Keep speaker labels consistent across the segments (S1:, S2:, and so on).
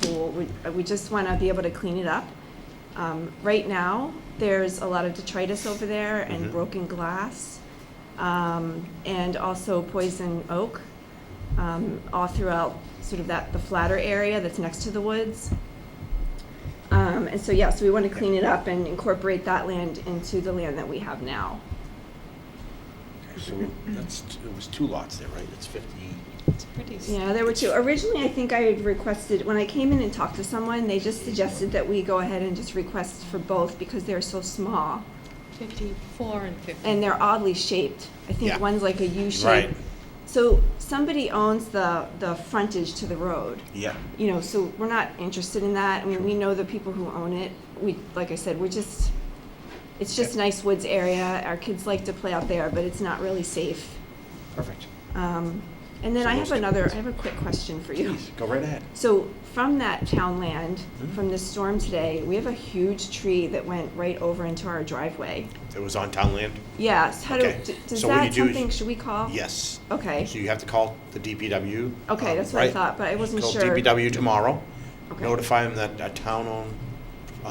S1: so we, we just want to be able to clean it up. Um, right now, there's a lot of detritus over there and
S2: Mhm.
S1: broken glass, um, and also poison oak, um, all throughout sort of that, the flatter area that's next to the woods. Um, and so, yeah, so we want to clean it up and incorporate that land into the land that we have now.
S2: So that's, t- it was two lots there, right? It's 50,
S3: It's pretty. s-
S1: Yeah, there were two. Originally, I think I had requested, when I came in and talked to someone, they just suggested that we go ahead and just request for both because they're so small
S3: Fifty-four and fifty.
S1: and they're oddly shaped. I think
S2: Yeah.
S1: one's like a U shape.
S2: Right.
S1: So somebody owns the, the frontage to the road.
S2: yeah.
S1: You know, so we're not interested in that. I mean, we know the people who own it. We, like I said, we're just, it's just
S2: Yeah.
S1: nice woods area. Our kids like to play out there, but it's not really safe.
S2: Perfect.
S1: Um, and then
S2: So
S1: I
S2: those
S1: have
S2: two
S1: another,
S2: ones.
S1: I have a quick question for you.
S2: Please, go right ahead.
S1: So from that town land,
S2: Mhm.
S1: from this storm today, we have a huge tree that went right over into our driveway.
S2: It was on town land?
S1: Yes, how do,
S2: Okay.
S1: d- does
S2: So what you
S1: that
S2: do is-
S1: something, should we call?
S2: Yes.
S1: Oh, Okay,
S2: So you have to call the DPW.
S1: Okay,
S2: um,
S1: that's what I
S2: right?
S1: thought, but I wasn't
S2: Call
S1: sure.
S2: DPW tomorrow.
S1: Okay.
S2: Notify them that a town-owned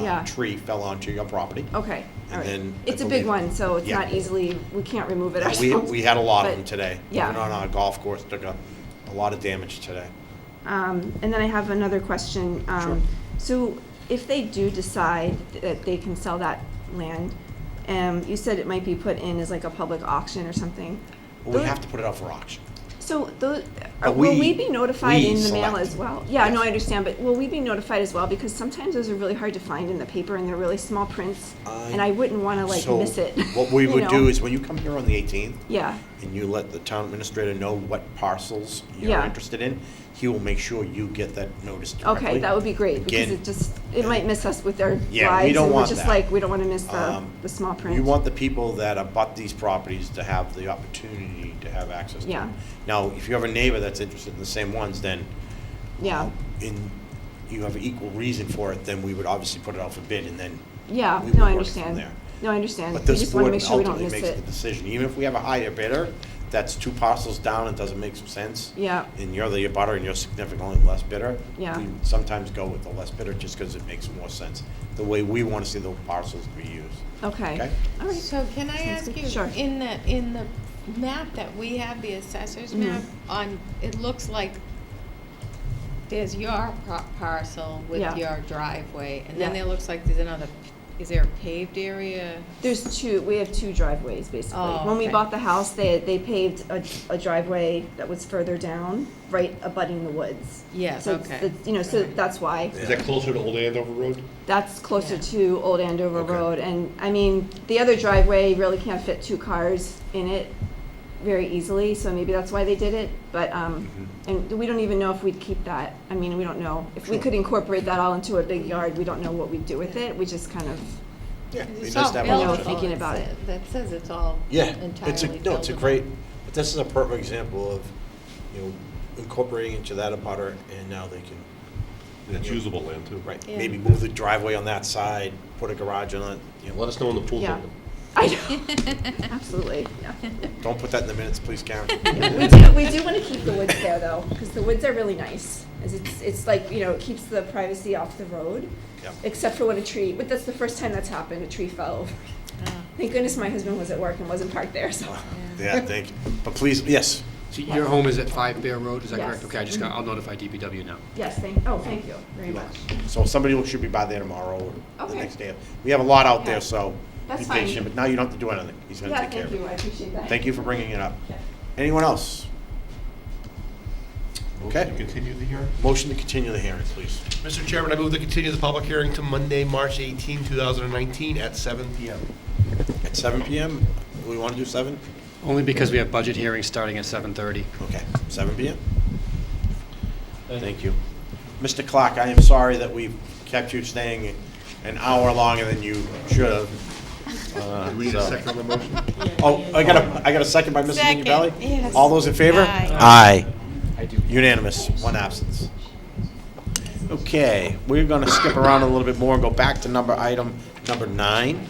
S1: Yeah. Oh,
S2: uh, tree fell onto your property.
S1: okay,
S2: And
S1: all right.
S2: then I
S1: It's a big
S2: believe-
S1: one, so it's
S2: Yeah.
S1: not easily, we can't remove it
S2: And We,
S1: ourselves.
S2: we had a lot of
S1: But-
S2: them today.
S1: yeah.
S2: Even on our golf course, took a, a lot of damage today.
S1: Um, and then I have another question.
S2: Sure.
S1: Um, so if they do decide that they can sell that land, um, you said it might be put in as like a public auction or something.
S2: But we
S1: Those-
S2: have to put it out for auction.
S1: So those,
S2: But
S1: will we
S2: we-
S1: be notified
S2: we
S1: in the mail
S2: select.
S1: as well? Yeah, no, I
S2: Yes.
S1: understand, but will we be notified as well? Because sometimes those are really hard to find in the paper and they're really small prints.
S2: I-
S1: And I wouldn't want to like
S2: So
S1: miss it.
S2: What we
S1: you
S2: would do
S1: know?
S2: is when you come here on the eighteenth
S1: Yeah,
S2: and you let the town administrator know what parcels you're
S1: Yeah.
S2: interested in, he will make sure you get that notice directly.
S1: okay, that would be great because
S2: Again,
S1: it just, it might miss us with our
S2: Yeah, we
S1: lives.
S2: don't
S1: and we're
S2: want
S1: just
S2: that.
S1: like, we don't want to miss the,
S2: Um,
S1: the small print.
S2: You want the people that have bought these properties to have the opportunity to have access to
S1: Yeah.
S2: them. Now, if you have a neighbor that's interested in the same ones, then
S1: Yeah,
S2: in, you have equal reason for it, then we would obviously put it out for bid and then.
S1: yeah,
S2: we would
S1: no,
S2: work
S1: I
S2: from
S1: understand.
S2: there.
S1: No, I understand.
S2: But
S1: We
S2: this
S1: just want to
S2: board
S1: make sure we don't
S2: ultimately
S1: miss
S2: makes the
S1: it.
S2: decision. Even if we have a higher bidder, that's two parcels down and doesn't make some sense.
S1: Yeah,
S2: And you're the abutter and you're significantly less bidder.
S1: Yeah.
S2: We sometimes go with the less bidder just because it makes more sense, the way we want to see the parcels be used.
S1: okay,
S2: Okay.
S1: all right.
S3: So can I
S1: Sounds
S3: ask
S1: good.
S3: you,
S1: Sure.
S3: in the, in the map that we have, the assessor's
S1: Mhm.
S3: map, on, it looks like there's your par- parcel
S1: Yeah.
S3: with your driveway, and then
S1: Yeah.
S3: there looks like there's another, is there a paved area?
S1: There's two, we have two driveways, basically.
S3: Oh,
S1: When we
S3: okay.
S1: bought the house, they, they paved a, a driveway that was further down, right abutting the woods.
S3: Yes,
S1: So it's-
S3: okay.
S1: it's, You know, so
S3: Alright.
S1: that's why,
S4: Is that closer to Old Andover Road?
S1: that's closer
S3: Yeah.
S1: to Old Andover
S4: Okay.
S1: Road, and, I mean, the other driveway really can't fit two cars in it very easily, so maybe that's why they did it, but, um, and we don't even know if we'd keep that, I mean, we don't know. If we
S2: Sure.
S1: could incorporate that all into a big yard, we don't know what we'd do with it, we just kind of,
S2: Yeah.
S3: Because
S2: we
S3: It's
S2: just
S3: all
S2: have
S1: built.
S2: options.
S1: No, thinking
S3: buildable, it
S1: about
S3: sa-
S1: it.
S3: that says it's all
S2: Yeah,
S3: entirely
S2: it's a, no, it's a
S3: buildable.
S2: great, but this is a perfect example of, you know, incorporating into that abutter and now they can,
S4: That's usable land too.
S2: right,
S3: Yeah.
S2: maybe move the driveway on that side, put a garage on it, you know,
S4: Let us know when the pool's
S1: Yeah.
S4: open.
S1: I know, absolutely, yeah.
S2: don't put that in the minutes, please, Karen.
S1: We do, we do want to keep the woods there though, because the woods are really nice. 'Cause It's, it's like, you know, it keeps the privacy off the road,
S2: Yeah.
S1: except for when a tree, but that's the first time that's happened, a tree fell over.
S3: Ah,
S1: Thank goodness my husband was at work and wasn't parked there, so.
S2: Yeah, thank you, but please, yes,
S5: So your home is at Five Bear Road, is that correct?
S1: Yes.
S5: Okay, I just got, I'll notify DPW now.
S1: Yes, thank, oh, thank you very much.
S2: so somebody will- should be by there tomorrow or the
S1: Okay.
S2: next day. We have a lot out
S1: Yeah.
S2: there, so be
S1: That's fine.
S2: patient, but now you don't have to do anything, he's gonna
S1: Yeah,
S2: take care
S1: thank
S2: of it.
S1: you, I appreciate that.
S2: Thank you for bringing it up.
S1: Yeah.
S2: Anyone else?
S4: Motion to
S2: Okay.
S4: Continue the hearing?
S2: Motion to continue the hearing, please.
S6: Mr. Chairman, I move to continue the public hearing to Monday, March 18, 2019, at 7 PM.
S2: At seven PM, we wanna do seven?
S5: Only because we have budget hearings starting at 7:30.
S2: Okay, seven PM? Thank you. Mr. Clark, I am sorry that we kept you staying an hour longer than you should have. Uh,
S4: Do we need a
S2: so-
S4: second on the motion?
S2: Oh, I got a, I got a second by Mrs.
S3: Second,
S2: Minipelli?
S3: yes.
S2: All those in favor?
S3: Aye.
S2: Unanimous, one absence. Okay, we're gonna skip around a little bit more and go back to number item number nine.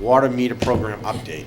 S2: Water meter program update.